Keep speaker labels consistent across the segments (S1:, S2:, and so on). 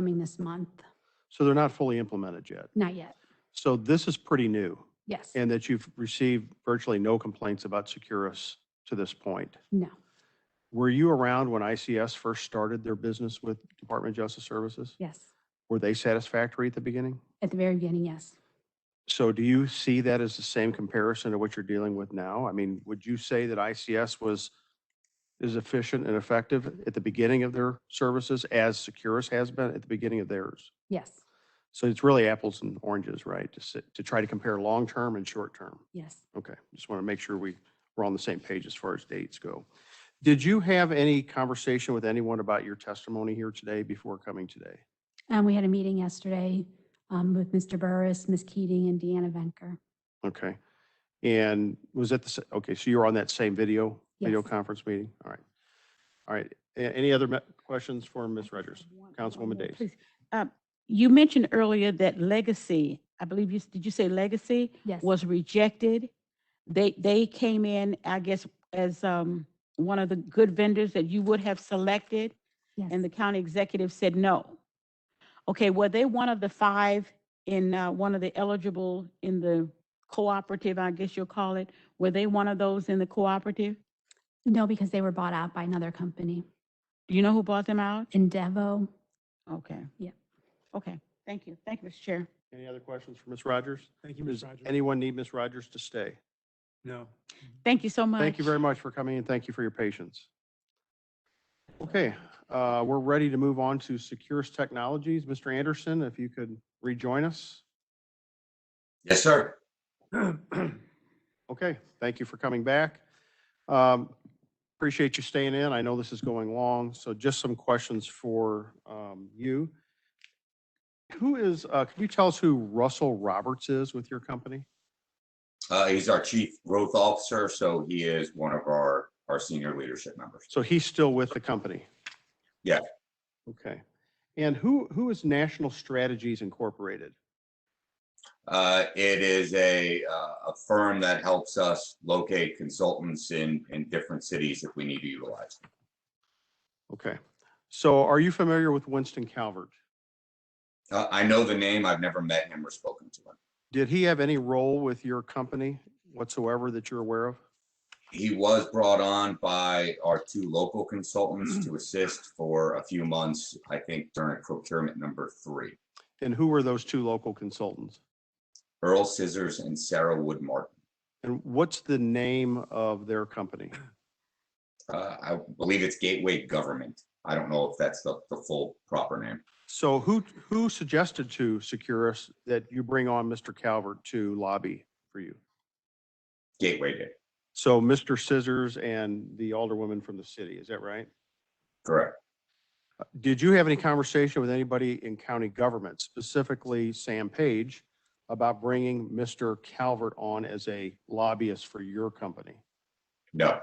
S1: coming this month.
S2: So they're not fully implemented yet.
S1: Not yet.
S2: So this is pretty new
S1: Yes.
S2: and that you've received virtually no complaints about Securus to this point.
S1: No.
S2: Were you around when ICS first started their business with Department of Justice Services?
S1: Yes.
S2: Were they satisfactory at the beginning?
S1: At the very beginning, yes.
S2: So do you see that as the same comparison to what you're dealing with now? I mean, would you say that ICS was as efficient and effective at the beginning of their services as Securus has been at the beginning of theirs?
S1: Yes.
S2: So it's really apples and oranges, right? To sit, to try to compare long-term and short-term.
S1: Yes.
S2: Okay, just want to make sure we, we're on the same page as far as dates go. Did you have any conversation with anyone about your testimony here today before coming today?
S1: And Um, we had a meeting yesterday um, with Mr. Burris, Ms. Keating, and Deanna Venker.
S2: Okay. And was that the, sa- okay, so you were on that same video, video
S1: Yes.
S2: conference meeting? All right. All right. A- Any other me- questions for Ms. Rogers? Councilwoman Days.
S3: Please, um, You mentioned earlier that Legacy, I believe you, s- did you say Legacy
S1: Yes.
S3: was rejected? They, they came in, I guess, as um, one of the good vendors that you would have selected,
S1: Yes.
S3: and the county executive said no. Okay, were they one of the five in, uh, one of the eligible in the cooperative, I guess you'll call it? Were they one of those in the cooperative?
S1: No, because they were bought out by another company,
S3: Do you know who bought them out?
S1: Endevo.
S3: Okay.
S1: Yeah.
S3: Okay, thank you. Thank you, Mr. Chair.
S2: Any other questions for Ms. Rogers?
S4: Thank you, Ms.
S2: Does
S4: Rogers.
S2: anyone need Ms. Rogers to stay?
S4: No.
S3: Thank you so much.
S2: Thank you very much for coming and thank you for your patience. Okay, uh, we're ready to move on to Securus Technologies. Mr. Anderson, if you could rejoin us.
S5: Yes, sir.
S2: Okay, thank you for coming back. Um, Appreciate you staying in. I know this is going long, so just some questions for um, you. Who is, uh, can you tell us who Russell Roberts is with your company?
S5: Uh, he's our chief growth officer, so he is one of our, our senior leadership members.
S2: So he's still with the company?
S5: Yeah.
S2: Okay. And who, who is National Strategies Incorporated?
S5: Uh, it is a, uh, a firm that helps us locate consultants in, in different cities if we need to utilize. them.
S2: Okay. So are you familiar with Winston Calvert?
S5: Uh, I know the name. I've never met him or spoken to him.
S2: Did he have any role with your company whatsoever that you're aware of?
S5: He was brought on by our two local consultants to assist for a few months, I think during procurement number three,
S2: And who were those two local consultants?
S5: Earl Scissors and Sarah Wood Martin.
S2: And what's the name of their company?
S5: Uh, I believe it's Gateway Government. I don't know if that's the, the full proper name.
S2: So who, who suggested to Securus that you bring on Mr. Calvert to lobby for you?
S5: Gateway did,
S2: So Mr. Scissors and the alderwoman from the city, is that right?
S5: correct.
S2: Did you have any conversation with anybody in county government, specifically Sam Page, about bringing Mr. Calvert on as a lobbyist for your company?
S5: No,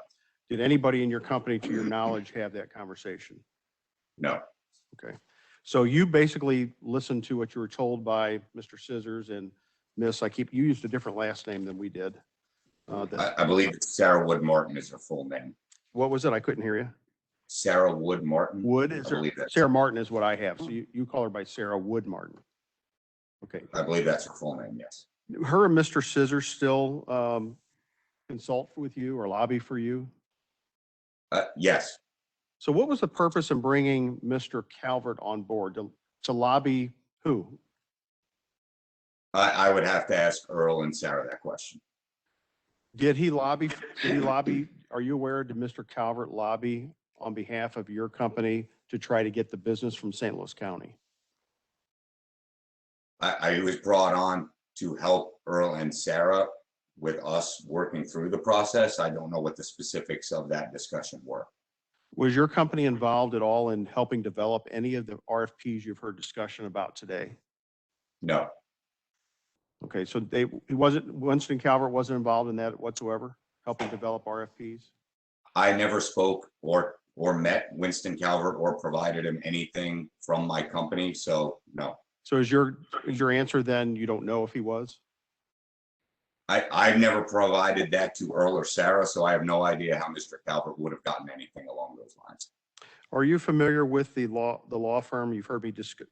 S2: Did anybody in your company, to your knowledge, have that conversation?
S5: no,
S2: So you basically listened to what you were told by Mr. Scissors and Miss, I keep, you used a different last name than we did. Uh, that-
S5: I, I believe it's Sarah Wood Martin is her full name.
S2: What was it? I couldn't hear you.
S5: Sarah Wood Martin.
S2: Wood is
S5: I
S2: her,
S5: believe that's,
S2: Sarah Martin is what I have. So you, you call her by Sarah Wood Martin. Okay.
S5: I believe that's her full name, yes.
S2: Her and Mr. Scissors still um, consult with you or lobby for you?
S5: Uh, yes,
S2: So what was the purpose in bringing Mr. Calvert on board? To, to lobby who?
S5: I, I would have to ask Earl and Sarah that question.
S2: Did he lobby, did he lobby, are you aware, did Mr. Calvert lobby on behalf of your company to try to get the business from St. Louis County?
S5: I, I was brought on to help Earl and Sarah with us working through the process. I don't know what the specifics of that discussion were.
S2: Was your company involved at all in helping develop any of the RFPs you've heard discussion about today?
S5: No,
S2: Okay, so they, he wasn't, Winston Calvert wasn't involved in that whatsoever, helping develop RFPs?
S5: I never spoke or, or met Winston Calvert or provided him anything from my company, so no.
S2: So is your, is your answer then you don't know if he was?
S5: I, I've never provided that to Earl or Sarah, so I have no idea how Mr. Calvert would have gotten anything along those lines.
S2: Are you familiar with the law, the law firm? You've heard me discuss,